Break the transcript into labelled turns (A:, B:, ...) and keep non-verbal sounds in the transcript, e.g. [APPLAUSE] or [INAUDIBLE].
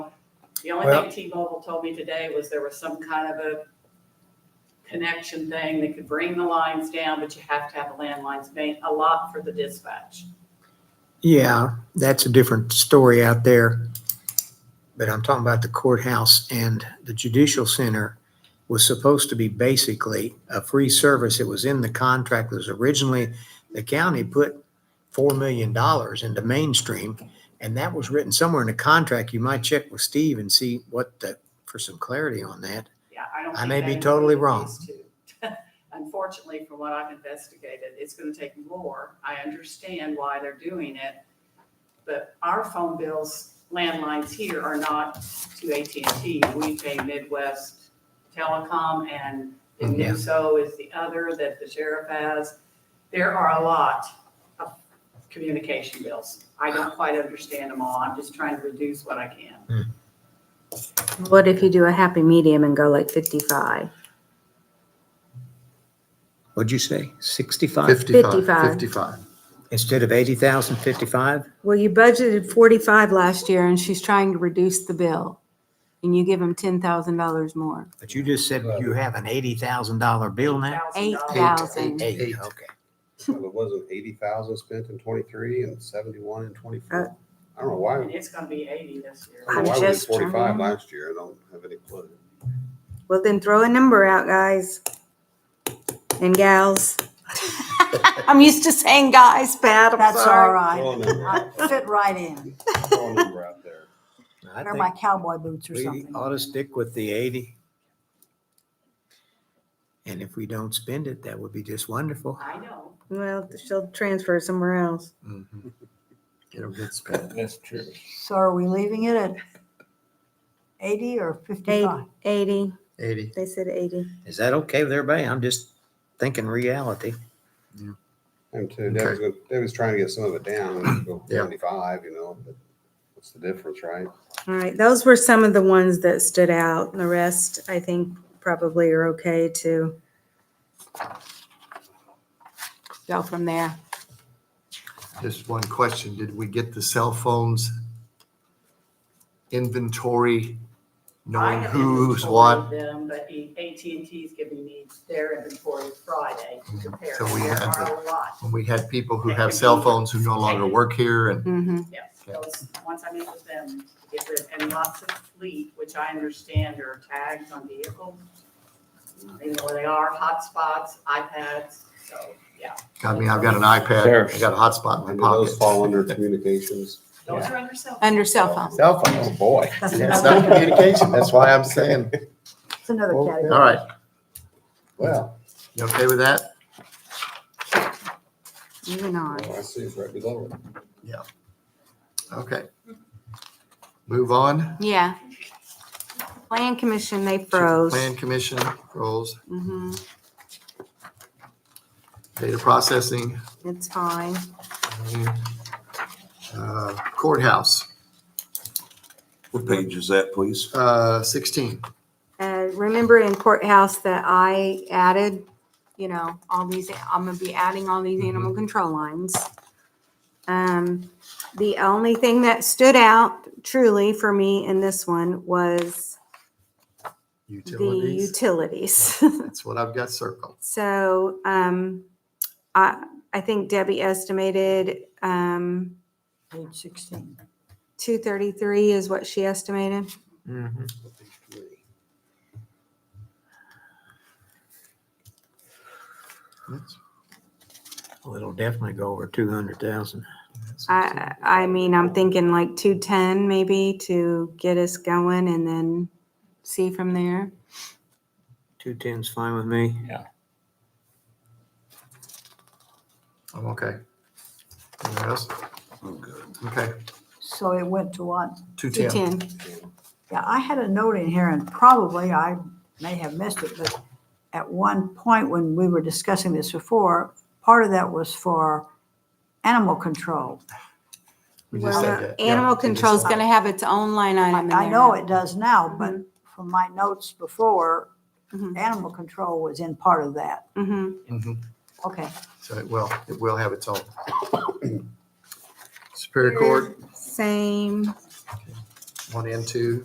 A: The only
B: Well-
A: thing T-Mobile told me today was there was some kind of a connection thing that could bring the lines down, but you have to have the landlines main, a lot for the dispatch.
B: Yeah, that's a different story out there. But I'm talking about the courthouse and the judicial center was supposed to be basically a free service. It was in the contract. It was originally, the county put $4 million into mainstream. And that was written somewhere in the contract. You might check with Steve and see what the, for some clarity on that.
A: Yeah, I don't.
B: I
A: think
B: may
A: that
B: be totally
A: included
B: wrong.
A: these two. [LAUGHS] Unfortunately, from what I've investigated, it's gonna take more. I understand why they're doing it. But our phone bills, landlines here are not to AT&T. We pay Midwest Telecom and
B: Mhm.
A: Newso is the other that the sheriff has. There are a lot of communication bills. I don't quite understand them all. I'm just trying to reduce what I can.
C: What if you do a happy medium and go like fifty-five?
B: What'd you say? 65
C: 55.
D: 55, 55.
B: instead of 80,000, 55?
C: Well, you budgeted forty-five last year and she's trying to reduce the bill. And you give them ten thousand dollars more.
B: But you just said you have an $80,000 bill now?
C: Eight
A: $8,000.
C: thousand.
B: Eight,
D: Eight.
B: okay.
E: Well, It wasn't eighty thousand spent in twenty-three and seventy-one in
C: Uh,
E: twenty-four. I don't know why, I
A: And it's gonna be eighty this year.
D: Oh,
E: don't know
C: I'm
E: why we did
C: just trying.
E: forty-five last year, I don't have any clue.
C: Well, then throw a number out, guys and gals. [LAUGHS] I'm used to saying guys, Pat, I'm
F: That's all
C: sorry.
F: right.
E: Throw a number
F: I
E: out there.
F: fit right in.
E: Throw a number out there.
B: I
F: Wear
B: think-
F: my cowboy boots or
B: We
F: something.
B: ought to stick with the eighty. And if we don't spend it, that would be just wonderful.
A: I know.
C: Well, she'll transfer somewhere else.
B: Mhm. It'll get spent.
D: That's true.
F: So are we leaving it at eighty or
C: Eight-
F: fifty-five?
C: Eighty,
D: 80.
C: they said eighty.
B: Is that okay with everybody? I'm just thinking reality.
E: And too, Debbie's, gonna- Debbie's trying to get some of it down, and go
D: Yeah.
E: twenty-five, you know, but what's the difference, right?
C: All right, those were some of the ones that stood out. The rest, I think, probably are okay to go from there.
D: Just one question. Did we get the cell phones inventory,
A: I
D: knowing
A: have
D: who's
A: inventoried
D: what?
A: Them, but at and T's giving me their inventory Friday to compare.
D: So we
A: There
D: have
A: are a lot,
D: When we had people who have cell phones who no longer work here and
C: Mm-hmm.
A: yes.
D: Okay.
A: Those, once I meet with them, get rid- and lots of fleet, which I understand are tags on vehicles. They know where they are, hotspots, iPads, so, yeah.
D: I mean, I've got an iPad, I got a hotspot
E: And
D: in
E: do
D: my
E: those fall
D: pocket.
E: under communications?
A: Those are under cell.
C: Under cell phone.
D: Cell
E: Oh,
D: phones.
E: boy.
D: Yeah, It's not communication. That's why I'm saying.
F: It's another
E: Well,
F: category.
D: All right.
E: Well,
D: You okay with that?
C: Moving on.
E: well, I see, it's right below it.
D: Okay. Move on.
C: Yeah. Plan commission, they
D: to the
C: froze.
D: Plan commission rolls,
C: hmm
D: data processing.
C: it's fine.
D: Uh, Courthouse,
G: What page is that, please?
D: uh, sixteen.
C: Uh, remember in courthouse that I added, you know, all these, I'm gonna be adding all these animal control lines. Um, the only thing that stood out truly for me in this one was the
D: Utilities,
C: utilities. [LAUGHS]
D: that's what I've got circled.
C: So, um, I, I think Debbie estimated, um,
F: Page sixteen.
C: two thirty-three is what she estimated.
D: That's-
B: Well, it'll definitely go over two hundred thousand.
D: that's-
C: I, I mean, I'm thinking like two ten maybe to get us going and then see from there.
B: Two ten's fine with me.
D: I'm okay. Anyone else?
G: I'm good.
D: Okay,
F: So it went to what?
D: two
C: Two
D: ten.
C: ten.
F: Yeah, I had a note in here and probably I may have missed it, but at one point when we were discussing this before, part of that was for animal control.
D: We just said
C: Well,
D: that. Yeah,
C: animal
D: we just
C: control is
D: said-
C: gonna have its own line item in there.
F: I know it does now, Mm-hmm. but from my notes before,
C: Mhm.
F: animal control was in part of that.
C: hmm
D: Mhm.
F: Okay.
D: So it will, it will have
C: [COUGHS]
D: its own. Superior Court,
C: Same.
D: one and two.